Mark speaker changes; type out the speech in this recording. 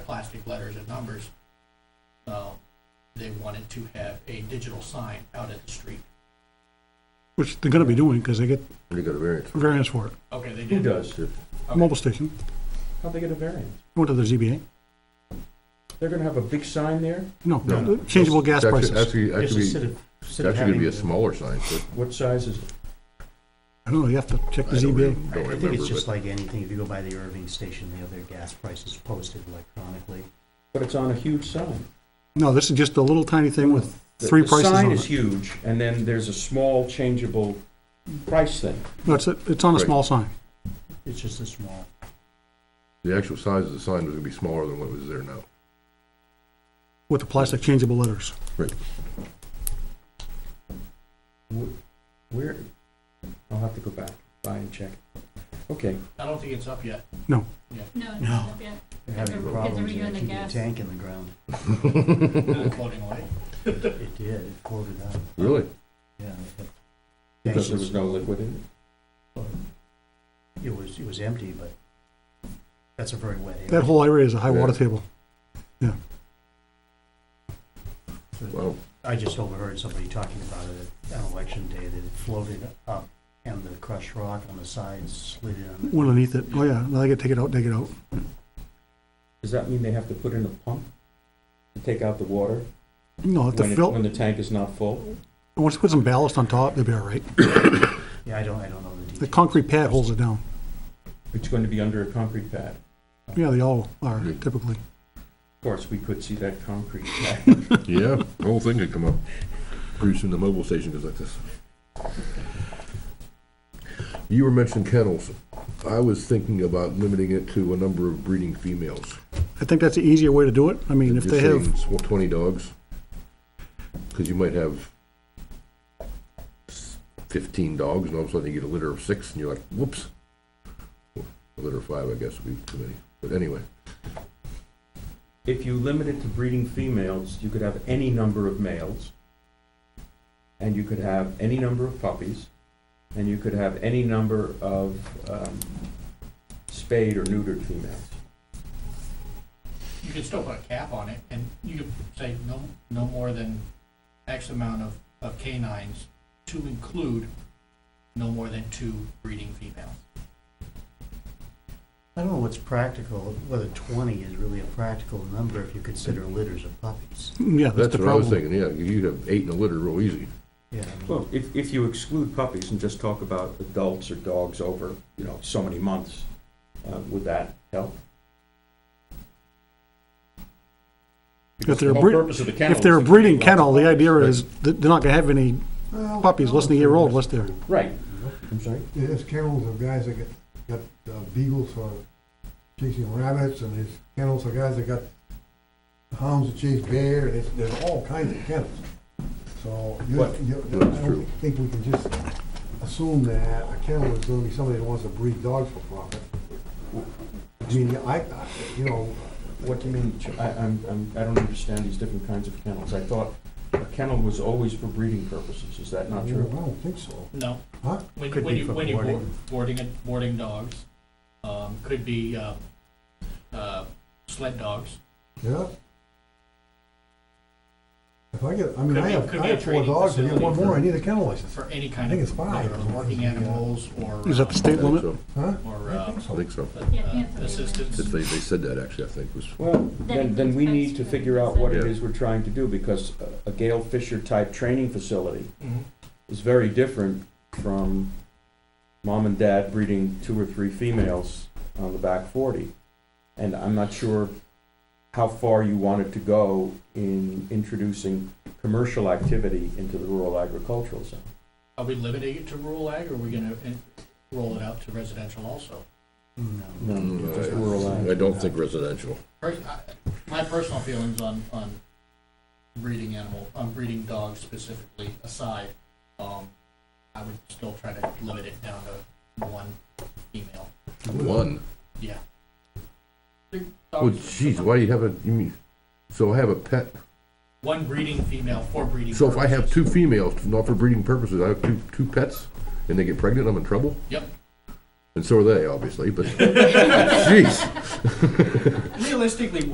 Speaker 1: plastic letters and numbers. So they wanted to have a digital sign out at the street.
Speaker 2: which they're gonna be doing, because they get
Speaker 3: They got a variance.
Speaker 2: variance for it.
Speaker 1: Okay, they
Speaker 4: Who
Speaker 1: did.
Speaker 4: does?
Speaker 1: Okay.
Speaker 2: Mobile station,
Speaker 4: How'd they get a variance?
Speaker 2: went to the ZBA,
Speaker 4: They're gonna have a big sign there?
Speaker 2: no, changeable gas
Speaker 3: Actually-
Speaker 2: prices.
Speaker 3: Actually,
Speaker 4: It's a
Speaker 3: actually,
Speaker 4: city-
Speaker 3: it's
Speaker 4: city
Speaker 3: actually gonna be a
Speaker 4: having-
Speaker 3: smaller sign, but
Speaker 4: What size is it?
Speaker 2: I don't know, you have to check the
Speaker 3: I don't re-
Speaker 2: ZBA,
Speaker 3: don't
Speaker 5: I think
Speaker 3: remember,
Speaker 5: it's just
Speaker 3: but
Speaker 5: like anything, if you go by the Irving station, they have their gas prices posted electronically.
Speaker 4: But it's on a huge sign.
Speaker 2: no, this is just a little tiny thing with
Speaker 4: The-
Speaker 2: three prices
Speaker 4: The sign
Speaker 2: on
Speaker 4: is
Speaker 2: it.
Speaker 4: huge, and then there's a small changeable price thing.
Speaker 2: No, it's, it's on a
Speaker 3: Right.
Speaker 2: small sign,
Speaker 5: It's just a small,
Speaker 3: the actual size of the sign was gonna be smaller than what was there now.
Speaker 2: with the plastic changeable letters.
Speaker 3: Right.
Speaker 4: Wh- Where, I'll have to go back, by and check. Okay,
Speaker 1: I don't think it's up yet.
Speaker 2: No,
Speaker 6: No, it's
Speaker 2: No.
Speaker 6: not up yet.
Speaker 5: they're having
Speaker 6: They're- they're
Speaker 5: problems
Speaker 6: redoing
Speaker 5: they're
Speaker 6: the
Speaker 5: keeping a
Speaker 6: gas.
Speaker 5: tank in the ground.
Speaker 1: Floating away.
Speaker 5: It did, it floated out,
Speaker 3: Really?
Speaker 5: yeah. but-
Speaker 4: because there was no liquid in it.
Speaker 5: It was, it was empty, but that's a very wet area.
Speaker 2: that whole area is a high water
Speaker 3: Yeah.
Speaker 2: table.
Speaker 3: Wow.
Speaker 5: I just overheard somebody talking about it on election day, that it floated up and the crushed rock on the sides slid in.
Speaker 2: One underneath it, oh yeah, now they gotta take it out, take it out.
Speaker 4: Does that mean they have to put in a pump to take out the water
Speaker 2: No, if
Speaker 4: when
Speaker 2: they
Speaker 4: it-
Speaker 2: fill,
Speaker 4: when the tank is not full?
Speaker 2: once you put some ballast on top, they'll be all right.
Speaker 5: Yeah, I don't, I don't know the details.
Speaker 2: The concrete pad holds it down.
Speaker 4: It's going to be under a concrete pad.
Speaker 2: Yeah, they all are typically.
Speaker 4: Of course, we could see that concrete pad.
Speaker 3: Yeah, the whole thing could come up. Pretty soon the mobile station goes like this. You were mentioning kennels. I was thinking about limiting it to a number of breeding females.
Speaker 2: I think that's the easier way to do it. I mean, if
Speaker 3: You're
Speaker 2: they have,
Speaker 3: saying sw- Twenty dogs, because you might have s- fifteen dogs, and all of a sudden you get a litter of six, and you're like, whoops. A litter of five, I guess, would be too many, but anyway,
Speaker 4: If you limit it to breeding females, you could have any number of males, and you could have any number of puppies, and you could have any number of um, spayed or neutered females.
Speaker 1: You could still put a cap on it and you could say no, no more than X amount of, of canines to include no more than two breeding females.
Speaker 5: I don't know what's practical, whether twenty is really a practical number if you consider litters of puppies.
Speaker 2: yeah, that's
Speaker 3: that's
Speaker 2: the
Speaker 3: what I was
Speaker 2: problem.
Speaker 3: thinking, yeah, you have eight in a litter real easy.
Speaker 5: Yeah.
Speaker 4: Well, if, if you exclude puppies and just talk about adults or dogs over, you know, so many months, uh, would that help?
Speaker 2: If they're,
Speaker 4: The
Speaker 2: a
Speaker 4: whole
Speaker 2: breed-
Speaker 4: purpose of the kennel
Speaker 2: if
Speaker 4: is
Speaker 2: they're a
Speaker 4: to
Speaker 2: breeding
Speaker 4: breed lots
Speaker 2: kennel,
Speaker 4: of
Speaker 2: the idea
Speaker 4: puppies.
Speaker 2: is that they're not gonna have any puppies less than a year old unless they're,
Speaker 4: Right, I'm sorry?
Speaker 7: There's kennels of guys that get, got uh, beagles for chasing rabbits, and there's kennels of guys that got hounds that chase bear, and it's, there's all kinds of kennels. So, you,
Speaker 4: What?
Speaker 7: you, I
Speaker 3: That's true.
Speaker 7: don't think we can just assume that a kennel is gonna be somebody that wants to breed dogs for profit. I mean, I, I- you know,
Speaker 4: What do you mean, ch- I, I'm, I'm, I don't understand these different kinds of kennels. I thought a kennel was always for breeding purposes, is that
Speaker 7: I
Speaker 4: not true?
Speaker 7: don't think so,
Speaker 1: No,
Speaker 7: huh?
Speaker 1: when,
Speaker 5: Could
Speaker 1: when
Speaker 5: be
Speaker 1: you,
Speaker 5: for
Speaker 1: when you
Speaker 5: boarding.
Speaker 1: board- boarding, it- boarding dogs, um, could be, uh, uh, sled dogs.
Speaker 7: Yeah. If I get, I mean,
Speaker 1: Could
Speaker 7: I
Speaker 1: be-
Speaker 7: have,
Speaker 1: could
Speaker 7: I
Speaker 1: be a
Speaker 7: have four
Speaker 1: training
Speaker 7: dogs, I get one
Speaker 1: facility
Speaker 7: more,
Speaker 1: for-
Speaker 7: I need a kennel license,
Speaker 1: for any
Speaker 7: I
Speaker 1: kind
Speaker 7: think
Speaker 1: of
Speaker 7: it's five.
Speaker 1: either working animals or. uh,
Speaker 2: is that the
Speaker 3: I
Speaker 2: state
Speaker 3: think
Speaker 2: limit?
Speaker 3: so,
Speaker 7: huh?
Speaker 1: Or,
Speaker 7: I
Speaker 1: uh,
Speaker 7: think
Speaker 3: I
Speaker 7: so.
Speaker 3: think so.
Speaker 6: Yeah, I think it's
Speaker 1: uh,
Speaker 6: a-
Speaker 1: assistance.
Speaker 3: Since they, they said that, actually, I think was,
Speaker 4: Well, then, then we need to figure out what it
Speaker 3: Yeah.
Speaker 4: is we're trying to do, because a- a Gail Fisher-type training facility
Speaker 1: Mhm.
Speaker 4: is very different from mom and dad breeding two or three females on the back forty. And I'm not sure how far you wanted to go in introducing commercial activity into the rural agricultural zone.
Speaker 1: Are we limiting it to rural ag, or are we gonna in- roll it out to residential also?
Speaker 4: No,
Speaker 3: Mm,
Speaker 4: just
Speaker 3: I-
Speaker 4: rural ag.
Speaker 3: I don't think residential.
Speaker 1: Pers- I- My personal feelings on, on breeding animal, on breeding dogs specifically aside, um, I would still try to limit it down to one female,
Speaker 3: One.
Speaker 1: yeah.
Speaker 3: Well, Oh, geez, why do you have a, you mean, so I have a pet,
Speaker 1: One breeding female for breeding.
Speaker 3: so if I have
Speaker 1: purposes.
Speaker 3: two females, not for breeding purposes, I have two, two pets, and they get pregnant, I'm in trouble?
Speaker 1: Yep,
Speaker 3: And so are they, obviously, but, jeez.
Speaker 1: realistically,